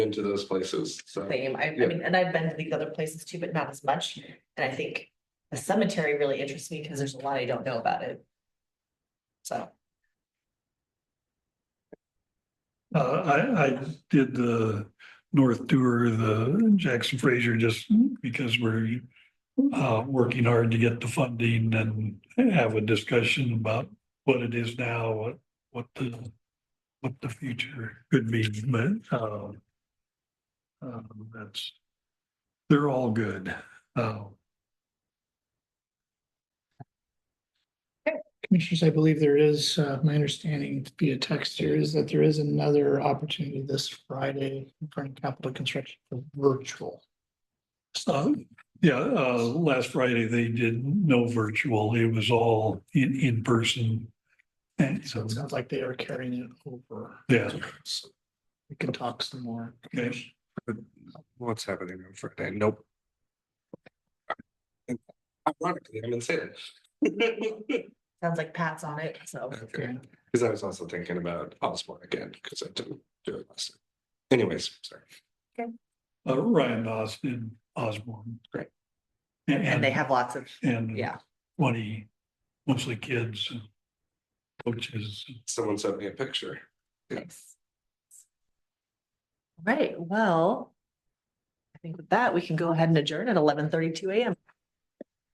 into those places, so. Same, I, I Yeah. mean, and I've been to these other places too, but not as much, and I think the cemetery really interests me because there's a lot I don't know about it. So, Uh, I, I did the North Tour, the Jackson Fraser, just because we're uh, working hard to get the funding and have a discussion about what it is now, what, what the, what the future could be, but, um, um, that's, they're all good. Uh, Commissioners, I believe there is, uh, my understanding via text here is that there is another opportunity this Friday in front of Capitol Construction for virtual. So, yeah, uh, last Friday they did no virtual. It was all in, in person. And So so, it sounds like they are carrying it over. yeah, So We can talk some more. Okay. What's happening on Friday? Nope. Ironically, I'm in Salem. sounds like Pat's on it, so. Okay, because I was also thinking about Osborne again, because I didn't do it last time. Anyways, sorry. uh, Ryan Austin Osborne. Great. And they have lots of, Mm-hmm. And. yeah. Twenty, mostly kids. and Coaches. Someone sent me a picture. Nice. Right, well. I think with that, we can go ahead and adjourn at eleven thirty-two AM.